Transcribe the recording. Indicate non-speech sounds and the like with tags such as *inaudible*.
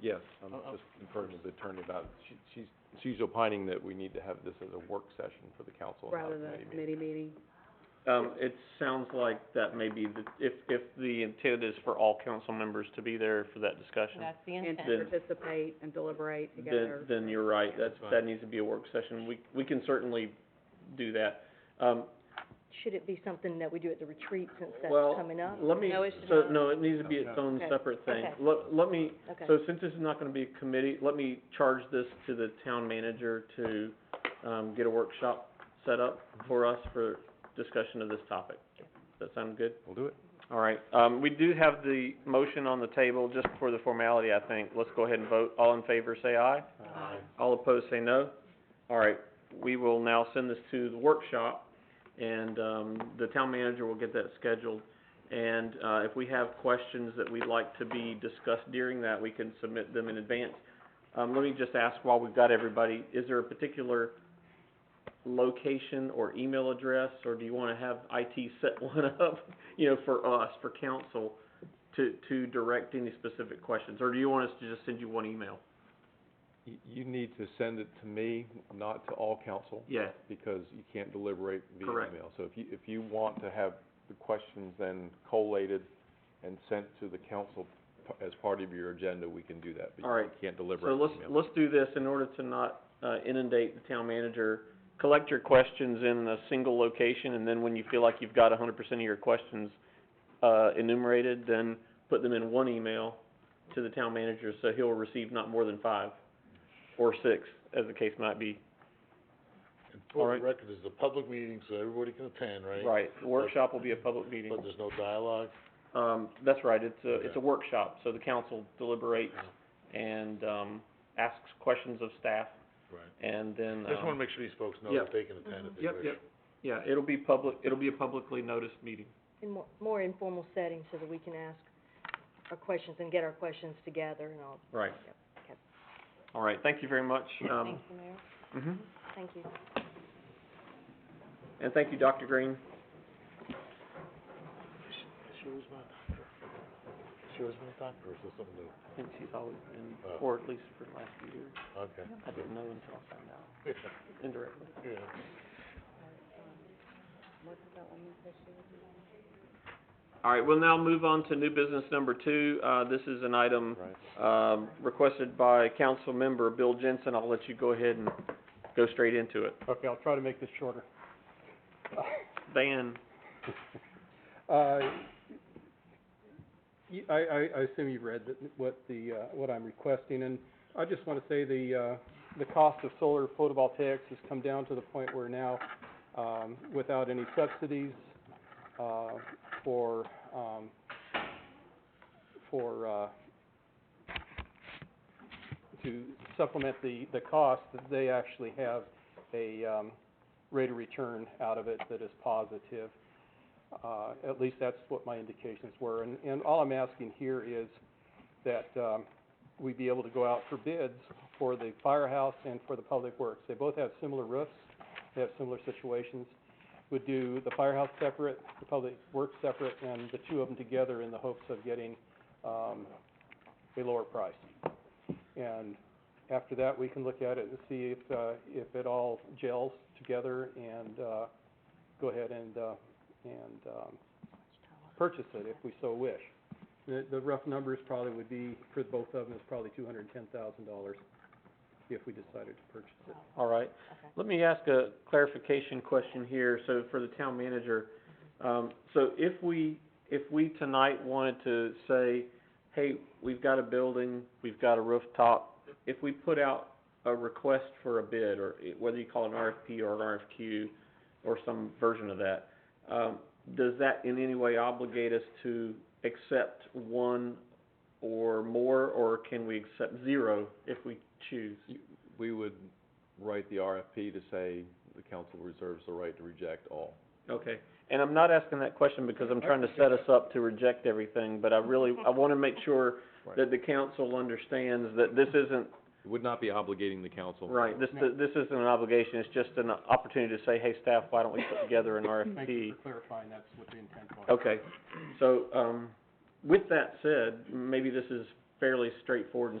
Yes, I'm Oh, oh. just conferring with the attorney about, she, she's, she's opining that we need to have this as a work session for the council and not rather a than committee meeting. a committee meeting. Um, it sounds like that may be the, if, if the intent is for all council members to be there for that discussion, That's the And intent. to Then- participate and deliberate then, together. then you're right, that, That's fine. that needs to be a work session. We, we can certainly do that. Um, Should it be something that we do at the retreat since that's Well, coming up? let me, No, it should so, not. no, it needs to be its own Okay. separate thing. Okay. Let, let me, Okay. so since this is not gonna be a committee, let me charge this to the town manager to, um, get a workshop set up for us for discussion of this topic. Does that sound good? We'll do it. All right, um, we do have the motion on the table, just for the formality, I think. Let's go ahead and vote. All in favor, say aye. Aye. All opposed, say no. All right, we will now send this to the workshop, and, um, the town manager will get that scheduled. And, uh, if we have questions that we'd like to be discussed during that, we can submit them in advance. Um, let me just ask while we've got everybody, is there a particular location or email address, or do you wanna have IT set *laughs* one up, you know, for us, for council, to, to direct any specific questions? Or do you want us to just send you one email? You, you need to send it to me, not to all council, Yeah, because you can't deliberate via Correct. email. So if you, if you want to have the questions then collated and sent to the council p- as part of your agenda, we can do that, but All you right. can't So deliberate let's, via email. let's do this in order to not uh, inundate the town manager. Collect your questions in a single location, and then when you feel like you've got a hundred percent of your questions, uh, enumerated, then put them in one email to the town manager, so he'll receive not more than five or six, as the case might be. And for Alright. the record, this is a public meeting, so everybody can attend, right? Right, the workshop will be a public meeting. But there's no dialogue, Um, that's right, it's a, Okay. it's a workshop, so the council deliberates and, um, asks questions of staff, right? and then, I just um, wanna make sure these folks know Yep. that they can attend if they wish. Yep, yep. Yeah, it'll be public, it'll be a publicly noticed meeting. In more, more informal setting so that we can ask our questions and get our questions together and all. Right. Yep, okay. All right, thank you very much. Um, Thank you, Mayor. mhm. Thank you. And thank you, Dr. Green. She was my doctor. She was my doctor, or is this something new? I think she's always been, Oh. or at least for the last few years. Okay. I didn't know until I found out Yeah, indirectly. *laughs* yeah. All right, we'll now move on to new business number two. Uh, this is an item, um, requested by council member Bill Jensen. I'll let you go ahead and go straight into it. Okay, I'll try to make this shorter. Van, Uh, y- I, I- I assume you've read that, what the, uh, what I'm requesting, and I just want to say the, uh, the cost of solar photovoltaics has come down to the point where now, um, without any subsidies, uh, for, um, for, uh, to supplement the, the cost, that they actually have a, um, rate of return out of it that is positive. Uh, at least that's what my indications were. And, and all I'm asking here is that, um, we be able to go out for bids for the firehouse and for the public works. They both have similar roofs, they have similar situations. Would do the firehouse separate, the public works separate, and the two of them together in the hopes of getting, um, a lower price. And after that, we can look at it and see if, uh, if it all gels together and, uh, go ahead and, uh, and, um, purchase it if we so wish. The, the rough numbers probably would be, for both of them, is probably two hundred and ten thousand dollars if we decided to purchase it. all right. Okay. Let me ask a clarification question here, so for the town manager. Um, so if we, if we tonight wanted to say, hey, we've got a building, we've got a rooftop, if we put out a request for a bid, or i- whether you call it an RFP or an RFQ, or some version of that, um, does that in any way obligate us to accept one or more, or can we accept zero if we choose? We would write the RFP to say the council reserves the right to reject all. Okay, and I'm not asking that question because I'm trying to set us up to reject everything, but I really, I wanna make sure that the council understands that this isn't, It would not be obligating the council. right, this, this isn't an obligation, it's just an opportunity to say, hey, staff, why don't we put together an Thank you RFP? for clarifying, that's what the intent was. Okay, so, um, with that said, maybe this is fairly straightforward and